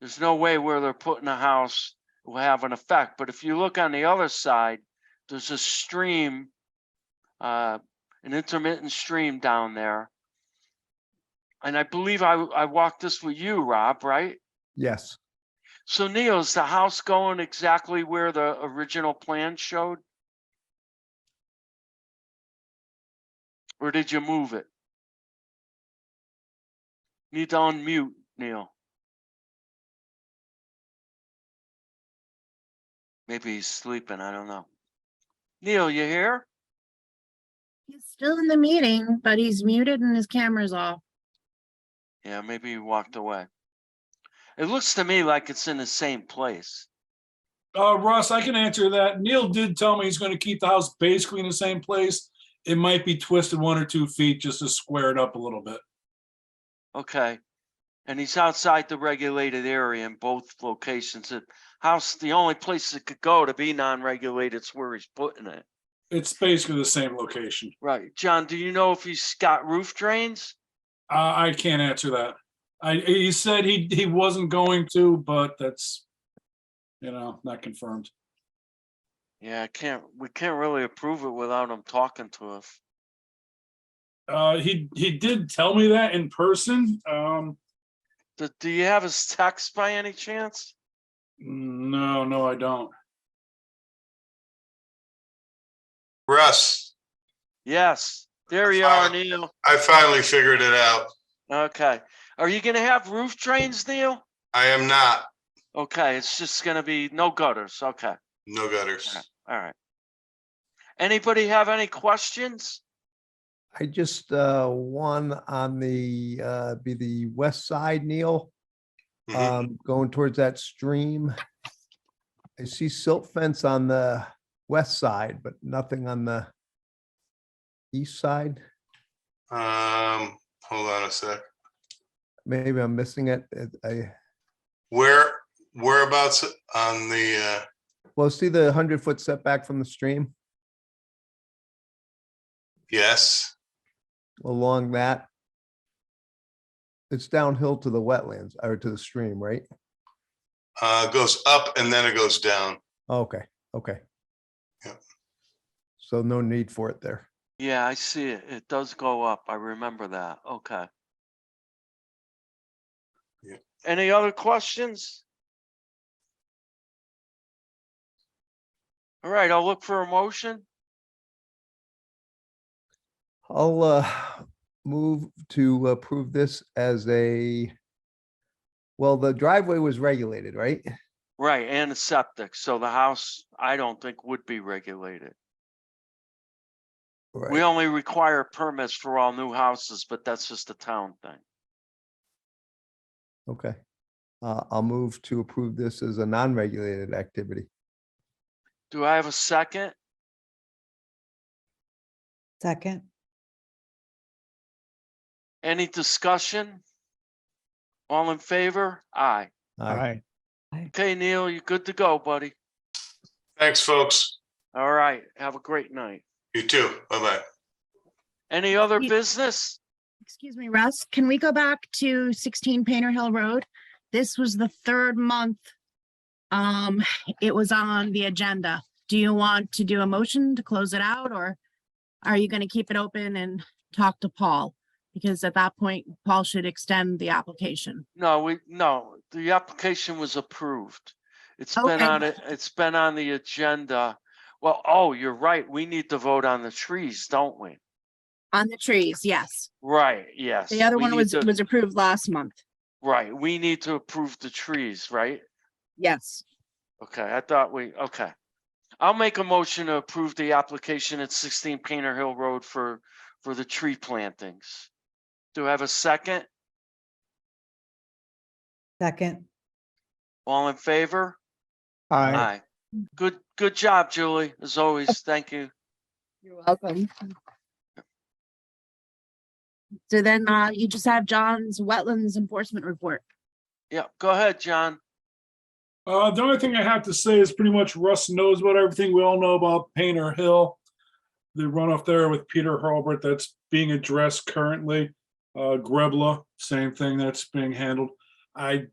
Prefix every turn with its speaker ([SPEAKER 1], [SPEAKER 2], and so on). [SPEAKER 1] there's no way where they're putting a house will have an effect. But if you look on the other side, there's a stream, uh, an intermittent stream down there. And I believe I, I walked this with you, Rob, right?
[SPEAKER 2] Yes,
[SPEAKER 1] So Neil, is the house going exactly where the original plan showed? Or did you move it? Need to unmute, Neil. Maybe he's sleeping, I don't know. Neil, you here?
[SPEAKER 3] He's still in the meeting, but he's muted and his camera's off.
[SPEAKER 1] Yeah, maybe he walked away. It looks to me like it's in the same place.
[SPEAKER 4] Uh, Russ, I can answer that. Neil did tell me he's gonna keep the house basically in the same place. It might be twisted one or two feet just to square it up a little bit.
[SPEAKER 1] Okay. And he's outside the regulated area in both locations. The house, the only place it could go to be non-regulated is where he's putting it.
[SPEAKER 4] It's basically the same location.
[SPEAKER 1] Right. John, do you know if he's got roof drains?
[SPEAKER 4] Uh, I can't answer that. I, he said he, he wasn't going to, but that's, you know, not confirmed.
[SPEAKER 1] Yeah, I can't, we can't really approve it without him talking to us.
[SPEAKER 4] Uh, he, he did tell me that in person. Um,
[SPEAKER 1] Do, do you have his text by any chance?
[SPEAKER 4] no, no, I don't.
[SPEAKER 5] Russ,
[SPEAKER 1] Yes, there you are,
[SPEAKER 5] Fine.
[SPEAKER 1] Neil.
[SPEAKER 5] I finally figured it out.
[SPEAKER 1] Okay. Are you gonna have roof drains, Neil?
[SPEAKER 5] I am not,
[SPEAKER 1] Okay, it's just gonna be no gutters. Okay,
[SPEAKER 5] no gutters.
[SPEAKER 1] all right. Anybody have any questions?
[SPEAKER 2] I just, uh, one on the, uh, be the west side, Neil,
[SPEAKER 5] Mhm.
[SPEAKER 2] um, going towards that stream. I see silt fence on the west side, but nothing on the east side.
[SPEAKER 5] Um, hold on a sec.
[SPEAKER 2] Maybe I'm missing it. It- I,
[SPEAKER 5] Where, whereabouts on the, uh,
[SPEAKER 2] well, see the hundred foot setback from the stream
[SPEAKER 5] yes,
[SPEAKER 2] along that. It's downhill to the wetlands or to the stream, right?
[SPEAKER 5] uh, goes up and then it goes down.
[SPEAKER 2] Okay, okay.
[SPEAKER 5] Yep.
[SPEAKER 2] So no need for it there.
[SPEAKER 1] Yeah, I see it. It does go up. I remember that. Okay.
[SPEAKER 5] Yeah.
[SPEAKER 1] Any other questions? All right, I'll look for a motion.
[SPEAKER 2] I'll uh, move to approve this as a, well, the driveway was regulated, right?
[SPEAKER 1] Right, and a septic. So the house, I don't think would be regulated. We
[SPEAKER 2] Right.
[SPEAKER 1] only require permits for all new houses, but that's just a town thing.
[SPEAKER 2] Okay. Uh, I'll move to approve this as a non-regulated activity.
[SPEAKER 1] Do I have a second?
[SPEAKER 6] Second,
[SPEAKER 1] Any discussion? All in favor? Aye.
[SPEAKER 2] Aye.
[SPEAKER 1] Okay, Neil, you're good to go, buddy.
[SPEAKER 5] Thanks, folks.
[SPEAKER 1] All right, have a great night.
[SPEAKER 5] You too. Bye-bye.
[SPEAKER 1] Any other
[SPEAKER 3] Ye-
[SPEAKER 1] business?
[SPEAKER 3] Excuse me, Russ, can we go back to sixteen Painter Hill Road? This was the third month. Um, it was on the agenda. Do you want to do a motion to close it out or are you gonna keep it open and talk to Paul? Because at that point, Paul should extend the application.
[SPEAKER 1] No, we, no, the application was approved. It's been
[SPEAKER 3] Okay.
[SPEAKER 1] on it, it's been on the agenda. Well, oh, you're right. We need to vote on the trees, don't we?
[SPEAKER 3] On the trees, yes.
[SPEAKER 1] Right, yes.
[SPEAKER 3] The other
[SPEAKER 1] we
[SPEAKER 3] one
[SPEAKER 1] need
[SPEAKER 3] was,
[SPEAKER 1] to-
[SPEAKER 3] was approved last month.
[SPEAKER 1] Right, we need to approve the trees, right?
[SPEAKER 3] Yes.
[SPEAKER 1] Okay, I thought we, okay. I'll make a motion to approve the application at sixteen Painter Hill Road for, for the tree plantings. Do I have a second?
[SPEAKER 6] second,
[SPEAKER 1] All in favor? Aye. Good, good job, Julie, as always. Thank you.
[SPEAKER 3] You're welcome. So then, uh, you just have John's wetlands enforcement report.
[SPEAKER 1] Yeah, go ahead, John.
[SPEAKER 4] Uh, the only thing I have to say is pretty much Russ knows about everything we all know about Painter Hill. The runoff there with Peter Hurlbert that's being addressed currently. Uh, Grebla, same thing that's being handled. I